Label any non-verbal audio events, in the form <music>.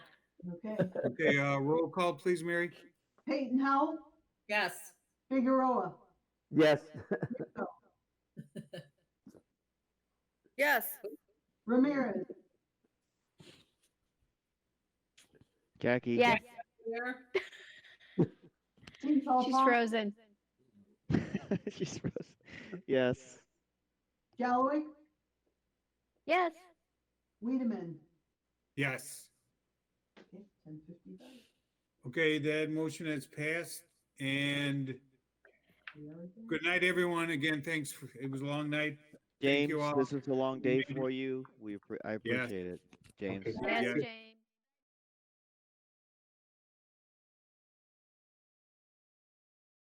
Okay. Okay, uh, roll call, please, Mary. Peyton Howell, Yes. Figueroa, Yes, Yes. Ramirez, Jackie. Yes, Tinkle she's Font, frozen. <laughs> She's frozen. Yes. Galloway, Yes, Weedman. Yes. Okay, 10:55. Okay, that motion has passed. And We are adjourned. good night, everyone. Again, thanks. for- It was a long night. James, you all. this was a long day for you. We, appre- I Yes. appreciate it, James. Okay. yes, Yeah. James.